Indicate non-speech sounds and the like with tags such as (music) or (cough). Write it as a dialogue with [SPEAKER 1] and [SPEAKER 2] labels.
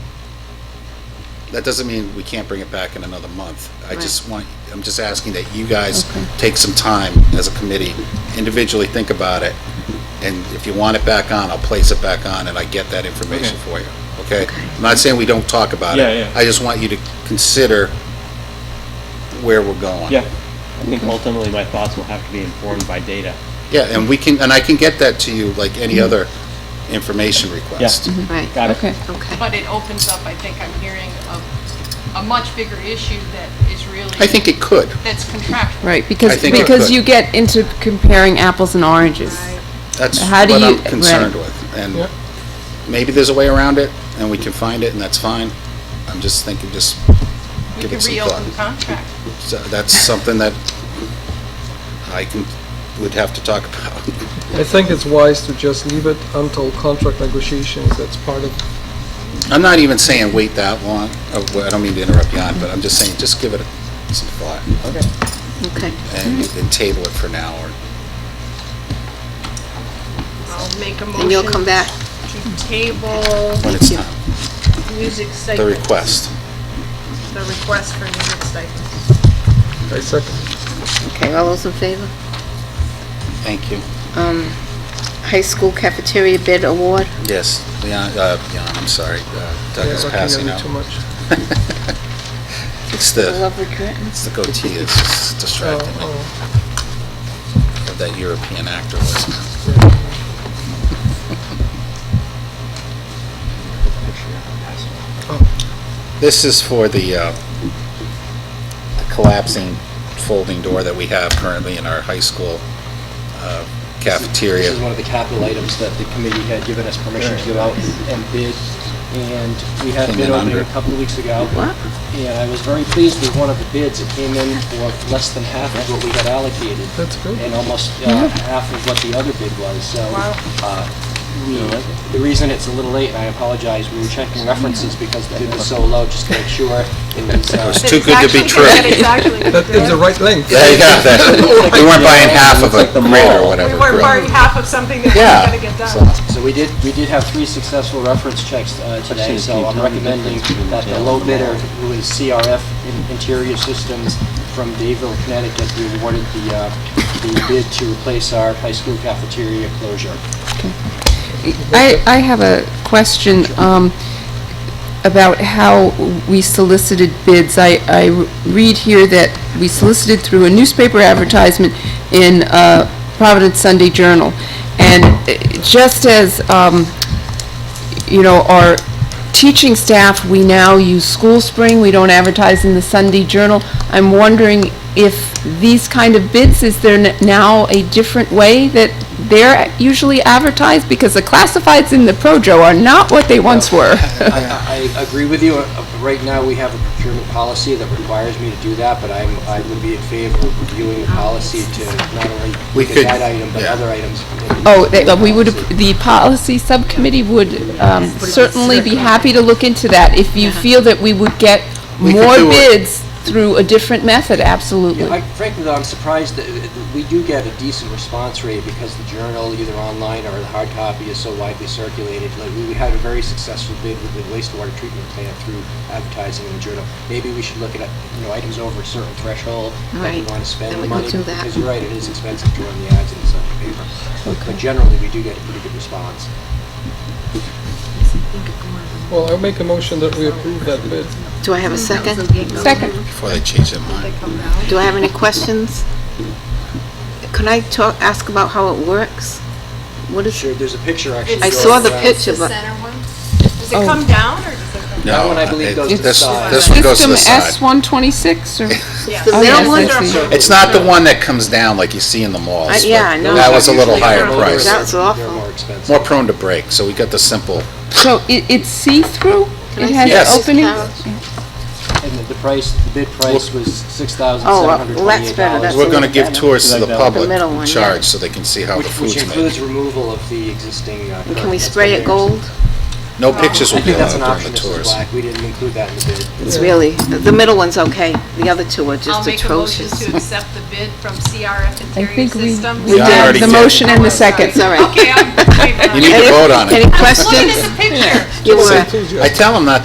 [SPEAKER 1] that doesn't mean we can't bring it back in another month. I just want, I'm just asking that you guys take some time as a committee, individually think about it, and if you want it back on, I'll place it back on, and I get that information for you, okay? I'm not saying we don't talk about it.
[SPEAKER 2] Yeah, yeah.
[SPEAKER 1] I just want you to consider where we're going.
[SPEAKER 2] Yeah, I think ultimately my thoughts will have to be informed by data.
[SPEAKER 1] Yeah, and we can, and I can get that to you like any other information request.
[SPEAKER 3] Right,
[SPEAKER 2] Got it.
[SPEAKER 3] okay.
[SPEAKER 4] Okay.
[SPEAKER 5] But it opens up, I think I'm hearing, a, a much bigger issue that is really.
[SPEAKER 1] I think it could.
[SPEAKER 5] That's contractual.
[SPEAKER 3] Right,
[SPEAKER 1] I
[SPEAKER 3] because,
[SPEAKER 1] think we
[SPEAKER 3] because
[SPEAKER 1] could.
[SPEAKER 3] you get into comparing apples and oranges.
[SPEAKER 1] That's
[SPEAKER 3] How
[SPEAKER 1] what
[SPEAKER 3] do you-
[SPEAKER 1] I'm
[SPEAKER 3] right.
[SPEAKER 1] concerned with. And maybe there's a way around it, and we can find it, and that's fine. I'm just thinking, just
[SPEAKER 5] We
[SPEAKER 1] give
[SPEAKER 5] could
[SPEAKER 1] it some
[SPEAKER 5] reopen the
[SPEAKER 1] thought.
[SPEAKER 5] contract.
[SPEAKER 1] So That's something that I can, would have to talk about.
[SPEAKER 6] I think it's wise to just leave it until contract negotiations, that's part of
[SPEAKER 1] I'm not even saying wait that long. Oh, well, I don't mean to interrupt you on, but I'm just saying, just give it some thought.
[SPEAKER 4] Okay.
[SPEAKER 1] And and table it for now, or
[SPEAKER 4] I'll make a
[SPEAKER 5] And you'll come
[SPEAKER 4] motion
[SPEAKER 5] back.
[SPEAKER 4] to table
[SPEAKER 1] when it's time,
[SPEAKER 4] music
[SPEAKER 1] the
[SPEAKER 4] stipends.
[SPEAKER 1] request.
[SPEAKER 4] The request for music stipends.
[SPEAKER 6] I second.
[SPEAKER 5] Okay, all those in favor?
[SPEAKER 1] Thank you.
[SPEAKER 5] High school cafeteria bid award.
[SPEAKER 1] Yes, Leon, uh, Leon, I'm sorry, uh, Doug
[SPEAKER 6] Yeah,
[SPEAKER 1] is
[SPEAKER 6] looking at
[SPEAKER 1] passing
[SPEAKER 6] me
[SPEAKER 1] out.
[SPEAKER 6] Too much.
[SPEAKER 1] It's the,
[SPEAKER 5] Lovely curtains.
[SPEAKER 1] it's the goatee that's
[SPEAKER 6] Oh,
[SPEAKER 1] distracting me,
[SPEAKER 6] oh.
[SPEAKER 1] of that European actor
[SPEAKER 7] (laughs)
[SPEAKER 1] was. Oh. This is for the, uh, the collapsing folding door that we have currently in our high school uh, cafeteria.
[SPEAKER 7] This is one of the capital items that the committee had given us permission to go out and bid, and we had a
[SPEAKER 1] Came
[SPEAKER 7] bid
[SPEAKER 1] in
[SPEAKER 7] opening a
[SPEAKER 1] under.
[SPEAKER 7] couple of weeks ago. And I was very pleased with one of the bids. It came in for less than half of what we had allocated.
[SPEAKER 6] That's good.
[SPEAKER 7] And almost uh, half of what the other bid was, so. uh, we- The reason it's a little late, and I apologize, we were checking references because the bid was so low, just to make sure it was. uh,
[SPEAKER 1] It's too good to be true.
[SPEAKER 4] It's actually
[SPEAKER 6] That is the right length.
[SPEAKER 1] There you go, that, we weren't buying half of a
[SPEAKER 2] It's like the
[SPEAKER 1] grid or
[SPEAKER 2] mall.
[SPEAKER 1] whatever.
[SPEAKER 4] We
[SPEAKER 1] grid.
[SPEAKER 4] weren't buying half of something that
[SPEAKER 1] Yeah.
[SPEAKER 4] wasn't gonna get
[SPEAKER 1] So-
[SPEAKER 4] done.
[SPEAKER 7] So we did, we did have three successful reference checks uh, today, so I'm recommending that the low bidder, who is CRF In- Interior Systems from Dayville, Connecticut, be awarded the, uh, the bid to replace our high school cafeteria closure.
[SPEAKER 3] I, I have a question um, about how we solicited bids. I, I read here that we solicited through a newspaper advertisement in uh, Providence Sunday Journal. And eh, just as, um, you know, our teaching staff, we now use School Spring, we don't advertise in the Sunday Journal. I'm wondering if these kind of bids, is there n- now a different way that they're usually advertised? Because the classifieds in the Projo are not what they once were.
[SPEAKER 1] (laughs)
[SPEAKER 7] I, I I agree with you. Uh, Right now, we have a procurement policy that requires me to do that, but I'm, I would be in favor of reviewing the policy to not only
[SPEAKER 1] We
[SPEAKER 7] look
[SPEAKER 1] could-
[SPEAKER 7] at that item, but
[SPEAKER 1] yeah.
[SPEAKER 7] other items.
[SPEAKER 3] Oh, they- we would, the policy subcommittee would um, certainly be happy to look into that if you feel that we would get
[SPEAKER 1] We could
[SPEAKER 3] more
[SPEAKER 1] do it.
[SPEAKER 3] bids through a different method, absolutely.
[SPEAKER 7] I- Frankly, though, I'm surprised that uh, that we do get a decent response rate because the journal, either online or the hard copy, is so widely circulated. Like, we we had a very successful bid with the wastewater treatment plant through advertising in the journal. Maybe we should look at, you know, items over a certain threshold that we
[SPEAKER 5] Right.
[SPEAKER 7] want to spend
[SPEAKER 5] Then we
[SPEAKER 7] the
[SPEAKER 5] could do
[SPEAKER 7] money.
[SPEAKER 5] that.
[SPEAKER 7] Because you're right, it is expensive to run the ads in the Sunday paper. But generally, we do get a pretty good response.
[SPEAKER 6] Well, I'll make a motion that we approve that bid.
[SPEAKER 5] Do I have a second?
[SPEAKER 3] Second.
[SPEAKER 1] Before they change their mind.
[SPEAKER 5] Do I have any questions? Can I talk, ask about how it works? What is,
[SPEAKER 7] Sure, there's a picture actually. uh,
[SPEAKER 5] I
[SPEAKER 7] going
[SPEAKER 5] saw the
[SPEAKER 7] around.
[SPEAKER 5] picture, but
[SPEAKER 4] Does it come down or does it come?
[SPEAKER 1] No,
[SPEAKER 7] That one, I believe,
[SPEAKER 1] it-
[SPEAKER 7] goes to the
[SPEAKER 1] this-
[SPEAKER 7] side.
[SPEAKER 1] This one goes to the
[SPEAKER 3] System
[SPEAKER 1] side.
[SPEAKER 3] S-126 or?
[SPEAKER 4] Yeah.
[SPEAKER 5] the
[SPEAKER 3] Oh, yes,
[SPEAKER 5] middle
[SPEAKER 3] I
[SPEAKER 5] one?
[SPEAKER 3] see.
[SPEAKER 1] It's not the one that comes down like you see in the
[SPEAKER 5] I-
[SPEAKER 1] malls.
[SPEAKER 5] yeah,
[SPEAKER 1] but
[SPEAKER 5] I know.
[SPEAKER 1] That was a little
[SPEAKER 7] Usually
[SPEAKER 1] higher
[SPEAKER 7] they're more-
[SPEAKER 1] price.
[SPEAKER 5] That was awful.
[SPEAKER 7] They're more expensive.
[SPEAKER 1] More prone to break, so we got the simple.
[SPEAKER 3] So it, it's see-through?
[SPEAKER 5] Can I
[SPEAKER 3] It
[SPEAKER 5] see
[SPEAKER 3] has
[SPEAKER 1] Yes.
[SPEAKER 3] openings?
[SPEAKER 7] And the- the price, the bid price was six thousand
[SPEAKER 5] Oh,
[SPEAKER 7] seven
[SPEAKER 5] well,
[SPEAKER 7] hundred twenty-eight dollars.
[SPEAKER 5] that's better. That's
[SPEAKER 1] We're going to give tours to the
[SPEAKER 2] The
[SPEAKER 1] public
[SPEAKER 5] middle one, yeah.
[SPEAKER 1] charge so they can see how the
[SPEAKER 7] Which, which
[SPEAKER 1] food's made.
[SPEAKER 7] includes removal of the existing. uh,
[SPEAKER 5] can we
[SPEAKER 7] curtains.
[SPEAKER 5] spray it gold?
[SPEAKER 1] No pictures
[SPEAKER 7] I
[SPEAKER 1] will be
[SPEAKER 7] think that's an
[SPEAKER 1] allowed during
[SPEAKER 7] option,
[SPEAKER 1] the
[SPEAKER 7] Mrs.
[SPEAKER 1] tours.
[SPEAKER 7] Black. We didn't include that in the bid.
[SPEAKER 5] It's really, the middle one's okay. The other two are
[SPEAKER 4] I'll
[SPEAKER 5] just
[SPEAKER 4] make a motion
[SPEAKER 5] atrocious.
[SPEAKER 4] to accept the bid from CRF
[SPEAKER 3] I
[SPEAKER 4] Interior
[SPEAKER 3] think we,
[SPEAKER 4] Systems.
[SPEAKER 3] we
[SPEAKER 1] Yeah, I already
[SPEAKER 3] did the
[SPEAKER 1] did.
[SPEAKER 3] motion and the
[SPEAKER 4] Sorry.
[SPEAKER 3] second.
[SPEAKER 5] It's all right.
[SPEAKER 4] Okay, I'm, wait,
[SPEAKER 1] You need to vote on
[SPEAKER 5] Any
[SPEAKER 1] it.
[SPEAKER 4] look at
[SPEAKER 5] questions?
[SPEAKER 4] the picture.
[SPEAKER 5] You were.
[SPEAKER 6] I told you.
[SPEAKER 1] I tell them not